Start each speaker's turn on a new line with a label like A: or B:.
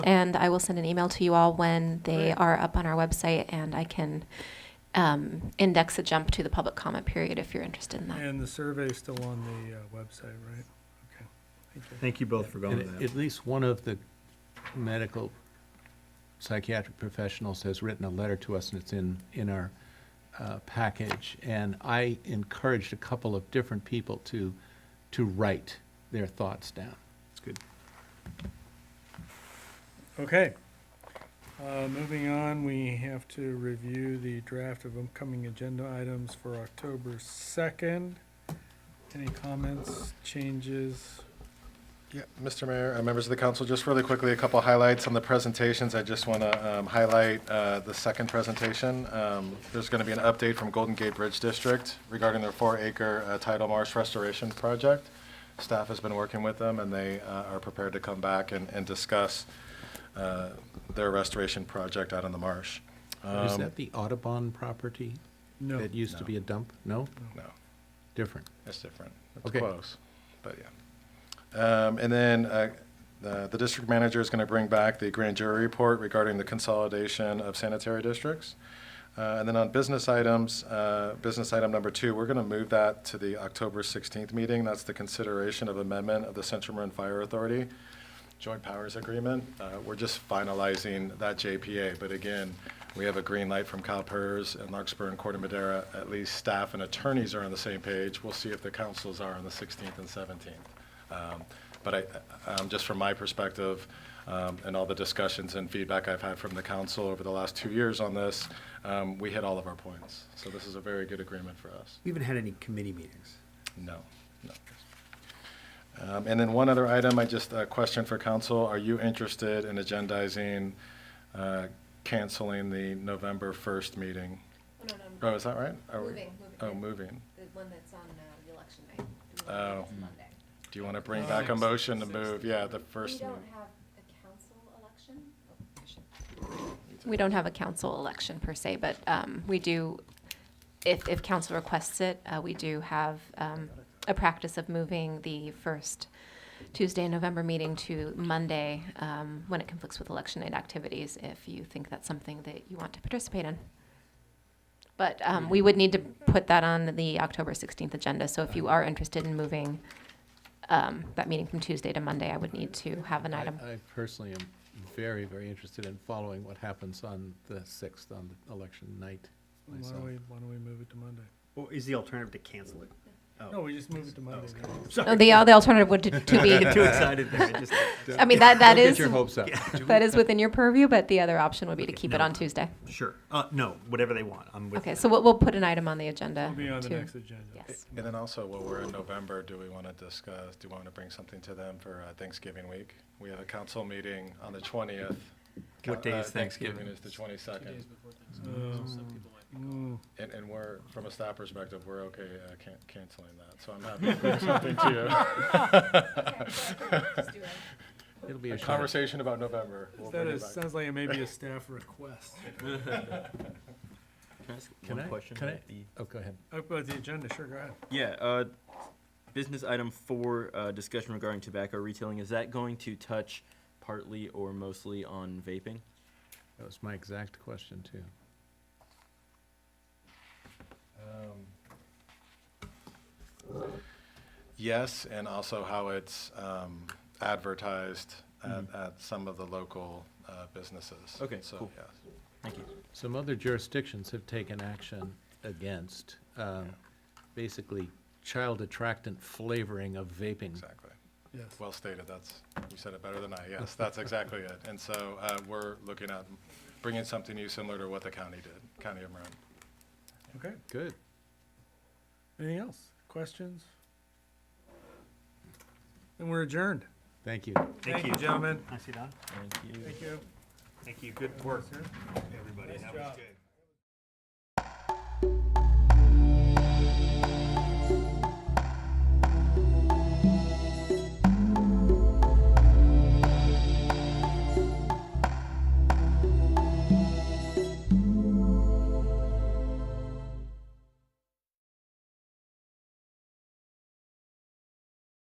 A: and I will send an email to you all when they are up on our website, and I can um, index a jump to the public comment period if you're interested in that.
B: And the survey's still on the uh, website, right? Okay, thank you.
C: Thank you both for going to
D: And
C: that.
D: At least one of the medical psychiatric professionals has written a letter to us, and it's in, in our uh, package. And I encouraged a couple of different people to, to write their thoughts down.
C: It's good.
B: Okay. Uh, Moving on, we have to review the draft of upcoming agenda items for October 2nd. Any comments, changes?
E: Yeah, Mr. Mayor, uh, members of the council, just really quickly, a couple highlights on the presentations. I just want to highlight uh, the second presentation. Um, There's going to be an update from Golden Gate Bridge District regarding their four-acre uh, tidal marsh restoration project. Staff has been working with them, and they uh, are prepared to come back and and discuss uh, their restoration project out on the marsh.
D: Is
E: Um,
D: that the Audubon property?
B: No.
D: That used to be a dump? No?
E: No.
D: Different.
E: That's different. It's
D: Okay.
E: close, but yeah. Um, and then, uh, the, the district manager is gonna bring back the grand jury report regarding the consolidation of sanitary districts. Uh, and then on business items, uh, business item number two, we're gonna move that to the October sixteenth meeting. That's the consideration of amendment of the Central Marin Fire Authority Joint Powers Agreement. Uh, We're just finalizing that JPA, but again, we have a green light from CalPERS and Larkspur and Corte Madera. At least staff and attorneys are on the same page. We'll see if the councils are on the 16th and 17th. Um, But I, um, just from my perspective, um, and all the discussions and feedback I've had from the council over the last two years on this, um, we hit all of our points. So this is a very good agreement for us.
C: We haven't had any committee meetings.
E: No, no. Um, And then one other item, I just, a question for council. Are you interested in agendizing, uh, canceling the November 1st meeting?
F: No, no,
E: Oh, is that right? Are we-
F: Moving, moving.
E: Oh, moving.
F: the one that's on uh, the election night. the one
E: Oh.
F: that's Monday.
E: Do you want to bring back a motion to move, yeah, the
F: We
E: first?
F: don't
E: meeting.
F: have a council election. Oh, I should-
A: We don't have a council election per se, but um, we do, if, if council requests it, uh, we do have um, a practice of moving the first Tuesday in November meeting to Monday um, when it conflicts with election night activities, if you think that's something that you want to participate in. But um, we would need to put that on the October 16th agenda, so if you are interested in moving um, that meeting from Tuesday to Monday, I would need to have an
D: I-
A: item.
D: I personally am very, very interested in following what happens on the 6th, on the election night
B: Why
D: myself.
B: don't we, why don't we move it to Monday?
C: Well, is the alternative to cancel it?
B: No,
C: Oh,
B: we just move it to Monday. then.
A: No, Oh, The, the alternative would to- to be
C: too excited there. I just-
A: I mean, that, that
D: Don't
A: is,
D: Get your hopes up.
A: that is within your purview, but the other option would be to keep it
C: no.
A: on Tuesday.
C: Sure. Uh, no, whatever they want. I'm with
A: Okay,
C: that.
A: so we'll, we'll put an item on the agenda.
B: It'll be on the
A: to-
B: next agenda.
A: Yes.
E: And then also, while we're in November, do we want to discuss, do we want to bring something to them for uh, Thanksgiving week? We have a council meeting on the 20th.
C: What day
E: Uh,
C: is Thanksgiving?
E: is the 22nd.
B: Oh, Mm,
E: And, and we're, from a staff perspective, we're okay uh, can- canceling that, so I'm happy to bring something to
F: Just do it.
D: It'll be
E: you.
D: a
E: A
D: short-
E: conversation about November. We'll
B: That
E: bring it
B: is,
E: back.
B: sounds like it may be a staff request.
G: Can I ask
D: Can
G: one
D: I-
G: question?
D: can I-
G: about the-
D: Oh, go ahead.
B: Up about the agenda, sure, go ahead.
G: Yeah, uh, business item four, uh, discussion regarding tobacco retailing, is that going to touch partly or mostly on vaping?
D: That was my exact question, too.
E: Yes, and also how it's um, advertised at,
C: Mm-hmm.
E: at some of the local uh, businesses.
G: Okay,
E: So,
G: cool.
E: yes.
G: Thank you.
D: Some other jurisdictions have taken action against, um, basically, child attractant flavoring of vaping.
E: Exactly.
B: Yes.
E: Well stated, that's, you said it better than I, yes, that's exactly it. And so uh, we're looking at bringing something new similar to what the county did, County of Marin.
B: Okay,
D: Good.
B: anything else? Questions? And we're adjourned.
D: Thank you.
C: Thank you.
B: Gentlemen,
C: I see that.
G: Thank you.
B: thank you.
C: Thank you. Good work, everybody. That was good.